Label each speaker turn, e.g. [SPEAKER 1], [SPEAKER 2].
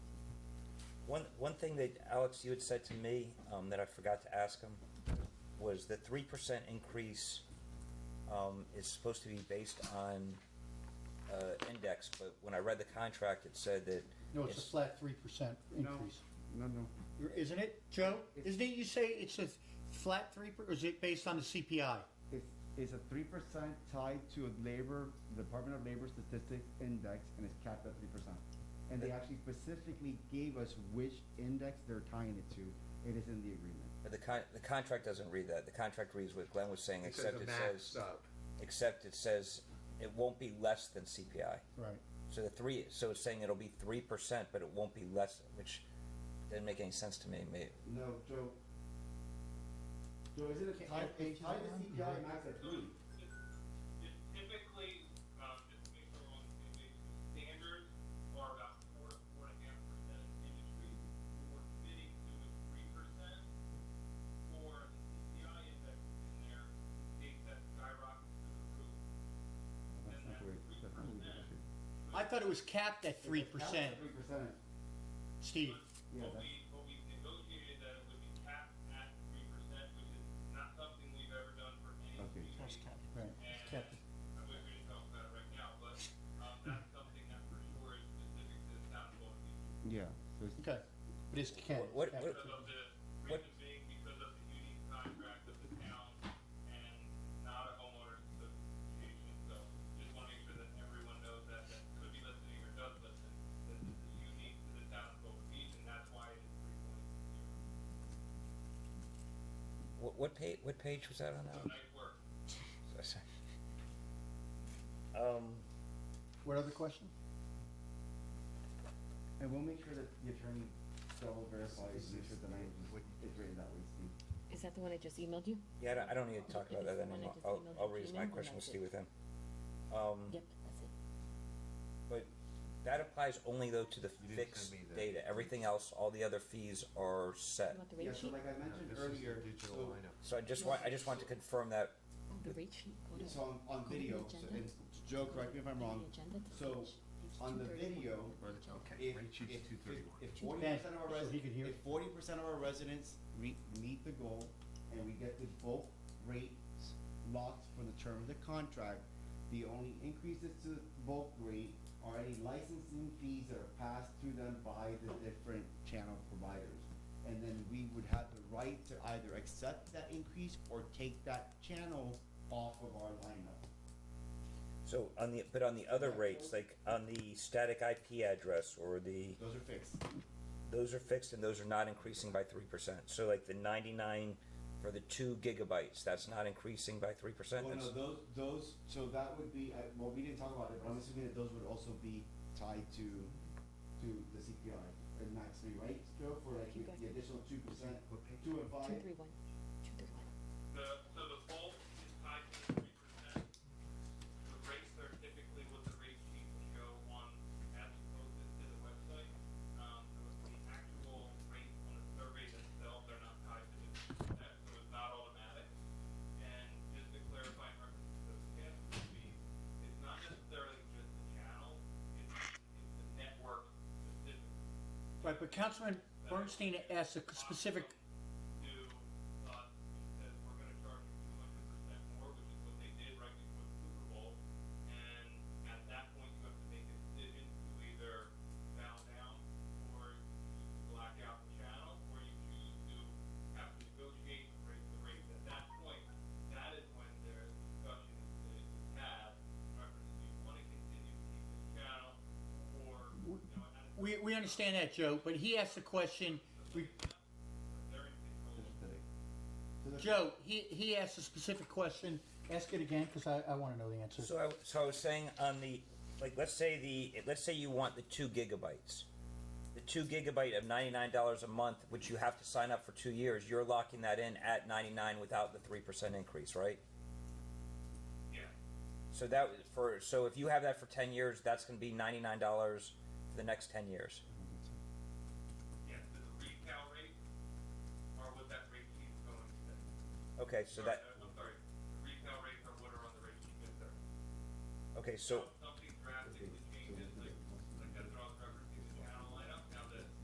[SPEAKER 1] One, one thing that, Alex, you had said to me, um, that I forgot to ask him, was the three percent increase, um, is supposed to be based on, uh, index, but when I read the contract, it said that.
[SPEAKER 2] No, it's a flat three percent increase.
[SPEAKER 3] No, no.
[SPEAKER 2] Isn't it, Joe? Isn't it, you say it's a flat three, per- or is it based on the CPI?
[SPEAKER 3] It's, it's a three percent tied to a labor, Department of Labor Statistics Index, and it's capped at three percent. And they actually specifically gave us which index they're tying it to. It is in the agreement.
[SPEAKER 1] But the con, the contract doesn't read that. The contract reads what Glenn was saying,
[SPEAKER 4] It says
[SPEAKER 1] except
[SPEAKER 4] a
[SPEAKER 1] it
[SPEAKER 4] max
[SPEAKER 1] says,
[SPEAKER 4] sub.
[SPEAKER 1] except it says it won't be less than CPI.
[SPEAKER 2] Right.
[SPEAKER 1] So the three, so it's saying it'll be three percent, but it won't be less, which didn't make any sense to me, maybe.
[SPEAKER 3] No, Joe. Joe, is it a tie, they tie the CPI max at three?
[SPEAKER 5] Typically, um, just to make sure we're on the same page, standards are about four, four and a half percent of the industry. What we're committing to is three percent for the CPI index in there, take that skyrocket to the roof.
[SPEAKER 3] That's not where, that's not where it should.
[SPEAKER 2] I thought it was capped at three percent,
[SPEAKER 3] Three percent.
[SPEAKER 2] Steve.
[SPEAKER 3] Yeah,
[SPEAKER 5] What
[SPEAKER 3] that-
[SPEAKER 5] we, what we negotiated that it would be capped at three percent, which is not something we've ever done for any
[SPEAKER 3] Okay.
[SPEAKER 5] community.
[SPEAKER 2] Right.
[SPEAKER 5] And
[SPEAKER 2] Captain.
[SPEAKER 5] I wish we didn't talk about it right now, but, um, that's something that for sure is specific to the town of Baltimore.
[SPEAKER 3] Yeah, so it's,
[SPEAKER 2] Okay. But it's capped.
[SPEAKER 1] What- what-
[SPEAKER 5] Because of the, reason being because of the unique contract of the town and not a homeowners association, so just wanna make sure that everyone knows that, that could be listening or does listen, that this is unique to the town of Boca Beach, and that's why it is three point zero.
[SPEAKER 1] What, what page, what page was that on
[SPEAKER 5] So
[SPEAKER 1] now?
[SPEAKER 5] nice work.
[SPEAKER 1] Um,
[SPEAKER 2] What other question?
[SPEAKER 3] and we'll make sure that the attorney double verifies, make sure the language is- is written that way, Steve.
[SPEAKER 6] Is that the one I just emailed you?
[SPEAKER 3] Mm-hmm.
[SPEAKER 1] yeah, I don't, I don't need to talk about that
[SPEAKER 6] If it's the one I
[SPEAKER 1] anymore.
[SPEAKER 6] just
[SPEAKER 1] I'll,
[SPEAKER 6] emailed
[SPEAKER 1] I'll
[SPEAKER 6] you,
[SPEAKER 1] raise
[SPEAKER 6] Gina,
[SPEAKER 1] my
[SPEAKER 6] and
[SPEAKER 1] question with
[SPEAKER 6] that's
[SPEAKER 1] Steve
[SPEAKER 6] it.
[SPEAKER 1] with him. Um,
[SPEAKER 6] Yep, that's it.
[SPEAKER 1] but that applies only though to the
[SPEAKER 4] didn't
[SPEAKER 1] fixed
[SPEAKER 4] send me that.
[SPEAKER 1] data. Everything else, all the other fees are
[SPEAKER 6] You
[SPEAKER 1] set.
[SPEAKER 6] want the
[SPEAKER 3] Yeah,
[SPEAKER 6] rate
[SPEAKER 3] so
[SPEAKER 6] sheet?
[SPEAKER 3] like I mentioned earlier. so-
[SPEAKER 1] So I just want, I just want to confirm that
[SPEAKER 6] Oh, the rate sheet? Go
[SPEAKER 3] It's
[SPEAKER 6] ahead.
[SPEAKER 3] on, on
[SPEAKER 6] Go to the
[SPEAKER 3] video, so-
[SPEAKER 6] agenda.
[SPEAKER 3] and Joe, correct me if I'm
[SPEAKER 6] Go to the
[SPEAKER 3] wrong,
[SPEAKER 6] agenda to
[SPEAKER 3] so,
[SPEAKER 6] page- page
[SPEAKER 3] on the
[SPEAKER 6] 231.
[SPEAKER 3] video, if, if, if forty
[SPEAKER 2] Ben,
[SPEAKER 3] percent of our
[SPEAKER 2] so he could
[SPEAKER 3] residents,
[SPEAKER 2] hear.
[SPEAKER 3] if forty percent of our residents re- meet the goal, and we get the bulk rates locked for the term of the contract, the only increases to the bulk rate are any licensing fees that are passed through them by the different channel providers. And then we would have the right to either accept that increase or take that channel off of our lineup.
[SPEAKER 1] So on the, but on the other rates, like on the static IP address or the,
[SPEAKER 3] Those are fixed.
[SPEAKER 1] those are fixed and those are not increasing by three percent. So like the ninety-nine for the two gigabytes, that's not increasing by three percent.
[SPEAKER 3] Well, no, those, those, so that would be, uh, well, we didn't talk about it, but I'm assuming that those would also be tied to, to the CPI at max three, right, Joe, for like
[SPEAKER 6] You
[SPEAKER 3] the-
[SPEAKER 6] got
[SPEAKER 3] the
[SPEAKER 6] it.
[SPEAKER 3] additional two percent, two and
[SPEAKER 6] Two,
[SPEAKER 3] five?
[SPEAKER 6] three, one. Two, three, one.
[SPEAKER 5] The, so the bulk is tied to the three percent. The rates are typically what the rate sheet will show on, as you posted to the website. Um, so it's the actual rate on the survey themselves, they're not tied to the three percent, so it's not automatic. And just to clarify, in reference to the past fee, it's not necessarily just the channel, it's, it's the network specific.
[SPEAKER 2] Right, but Councilman Bernstein asked a specific,
[SPEAKER 5] To, uh, says we're gonna charge you two hundred percent more, which is what they did right before the Super Bowl. And at that point, you have to make a decision to either bow down or black out the channel, or you choose to have to negotiate and raise the rates. At that point, that is when there's discussion that is had, whether you wanna continue to keep this channel or, you know, at a
[SPEAKER 2] we, we understand that, Joe, but he asked the question, we-
[SPEAKER 5] they're in control.
[SPEAKER 2] Joe, he, he asked a specific question. Ask it again, because I, I want to know the answer.
[SPEAKER 1] So I, so I was saying on the, like, let's say the, let's say you want the two gigabytes. The two gigabyte of ninety-nine dollars a month, which you have to sign up for two years, you're locking that in at ninety-nine without the three percent increase, right?
[SPEAKER 5] Yeah.
[SPEAKER 1] So that was for, so if you have that for ten years, that's gonna be ninety-nine dollars for the next ten years.
[SPEAKER 5] Yes, the retail rate are what that rate sheet is going to be.
[SPEAKER 1] Okay, so
[SPEAKER 5] Or,
[SPEAKER 1] that,
[SPEAKER 5] uh, I'm sorry, the retail rates are what are on the rate sheet, yes, sir.
[SPEAKER 1] okay, so,